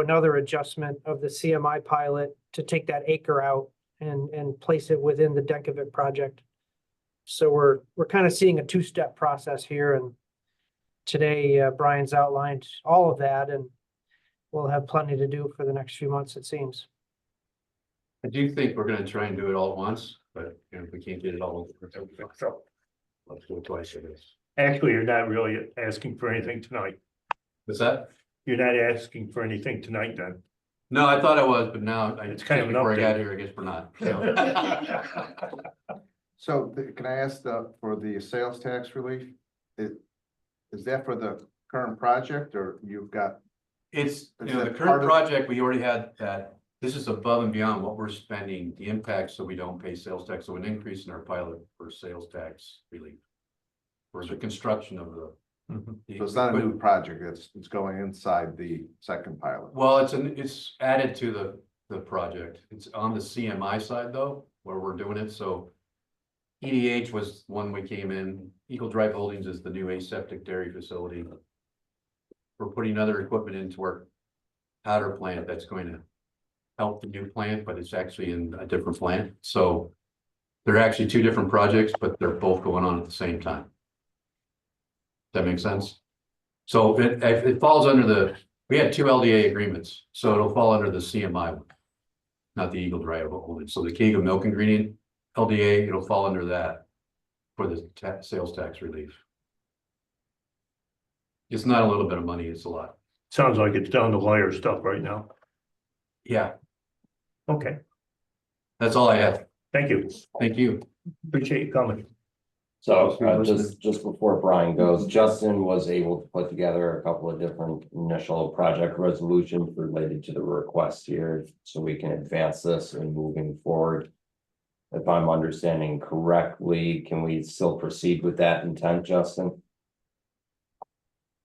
another adjustment of the CMI pilot to take that acre out and, and place it within the Denkovic project. So we're, we're kind of seeing a two-step process here and today uh, Brian's outlined all of that and we'll have plenty to do for the next few months, it seems. I do think we're gonna try and do it all at once, but you know, if we can't get it all, let's So go twice for this. actually, you're not really asking for anything tonight. Is that? You're not asking for anything tonight then. No, I thought I was, but now I It's kind of an before I got update. here, I guess we're not. so. So th- can I ask the, for the sales tax relief? It, is that for the current project or you've got, It's, you know, the that part current of- project, we already had that, this is above and beyond what we're spending, the impact, so we don't pay sales tax, so an increase in our pilot for sales tax relief. For the construction of the. Mm-hmm. the so it's not a equipment. new project, it's, it's going inside the second pilot. Well, it's an, it's added to the, the project. It's on the CMI side though, where we're doing it, so. EDH was one we came in, Eagle Drive Holdings is the new aseptic dairy facility. We're putting other equipment into our powder plant that's going to. Help the new plant, but it's actually in a different plant, so. They're actually two different projects, but they're both going on at the same time. Does That make sense? So it, it falls under the we had two LDA agreements, so it'll fall under the CMI one. Not the Eagle Drive holding, so the Kega Milk Ingredient LDA, it'll fall under that. For the ta- sales tax relief. It's not a little bit of money, it's a lot. Sounds like it's down to lawyer stuff right now. Yeah, Okay, that's all I have. thank you. Thank you. Appreciate you coming. So uh, just, just before Brian goes, Justin was able to put together a couple of different initial project resolutions related to the request here. So we can advance this and moving forward. If I'm understanding correctly, can we still proceed with that intent, Justin?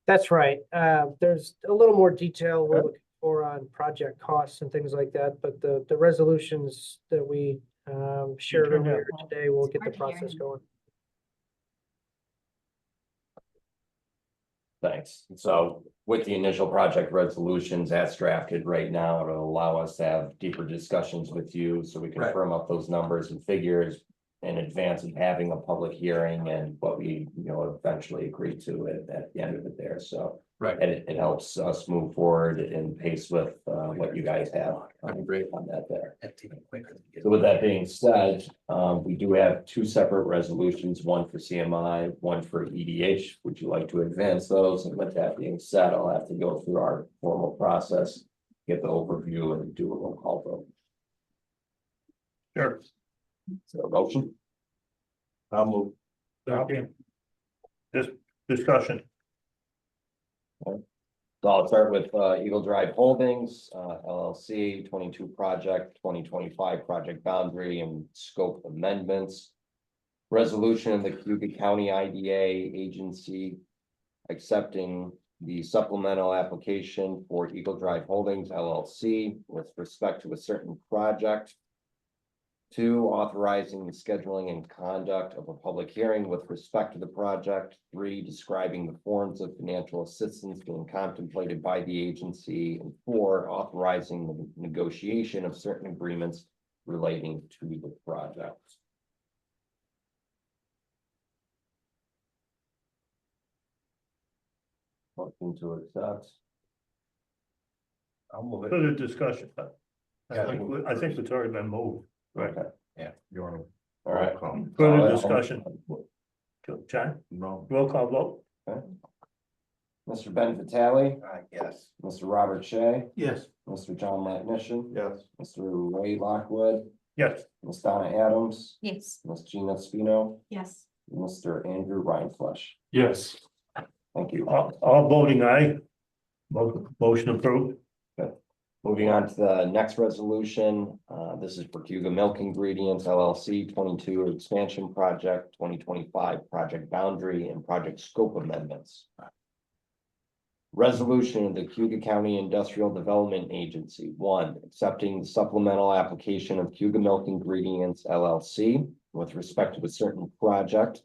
That's right. Uh, there's a little more detail we're looking for on project costs and things like that, but the, the resolutions that we, um, shared turned earlier out. today will get the hard to hear process him. going. Thanks. So with the initial project resolutions as drafted right now, it'll allow us to have deeper discussions with you so we can Right. firm up those numbers and figures. In advance of having a public hearing and what we, you know, eventually agree to at, at the end of it there, so. Right. And it, it helps us move forward in pace with, uh, what you guys have. um, Great. On that there. So with that being said, um, we do have two separate resolutions, one for CMI, one for EDH. Would you like to advance those? And with that being said, I'll have to go through our formal process, get the overview and do a roll call vote. Sure. So a motion? I'll move. Okay. This discussion, So I'll start with uh, Eagle Drive Holdings uh, LLC, twenty-two project, twenty twenty-five project boundary and scope amendments. Resolution of the Cuba County IDA agency accepting the supplemental application for Eagle Drive Holdings LLC with respect to a certain project. Two, authorizing the scheduling and conduct of a public hearing with respect to the project. Three, describing the forms of financial assistance being contemplated by the agency. And four, authorizing the negotiation of certain agreements relating to the project. Motion to accept. I'll move it. Further discussion. I think, we- I think it's already been moved. Right. You want to? All right. Further Uh, discussion. John, No. roll call vote? Okay. Mr. Ben Vitale, Uh, Yes. Mr. Robert Shea, Yes. Mr. John Latnition, Yes. Mr. Ray Lockwood, Yes. Ms. Donna Adams, Yes. Ms. Gina Spino, Yes. Mr. Andrew Rhineflesh. Yes. Thank you. All, all voting aye. Mo- Motion approved. Moving on to the next resolution, uh, this is for Cuba Milk Ingredients LLC twenty-two expansion project, twenty twenty-five project boundary and project scope amendments. Resolution of the Cuba County Industrial Development Agency, one, accepting the supplemental application of Cuba Milk Ingredients LLC with respect to a certain project.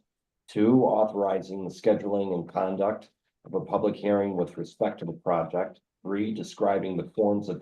Two, authorizing the scheduling and conduct of a public hearing with respect to the project. three, describing the forms of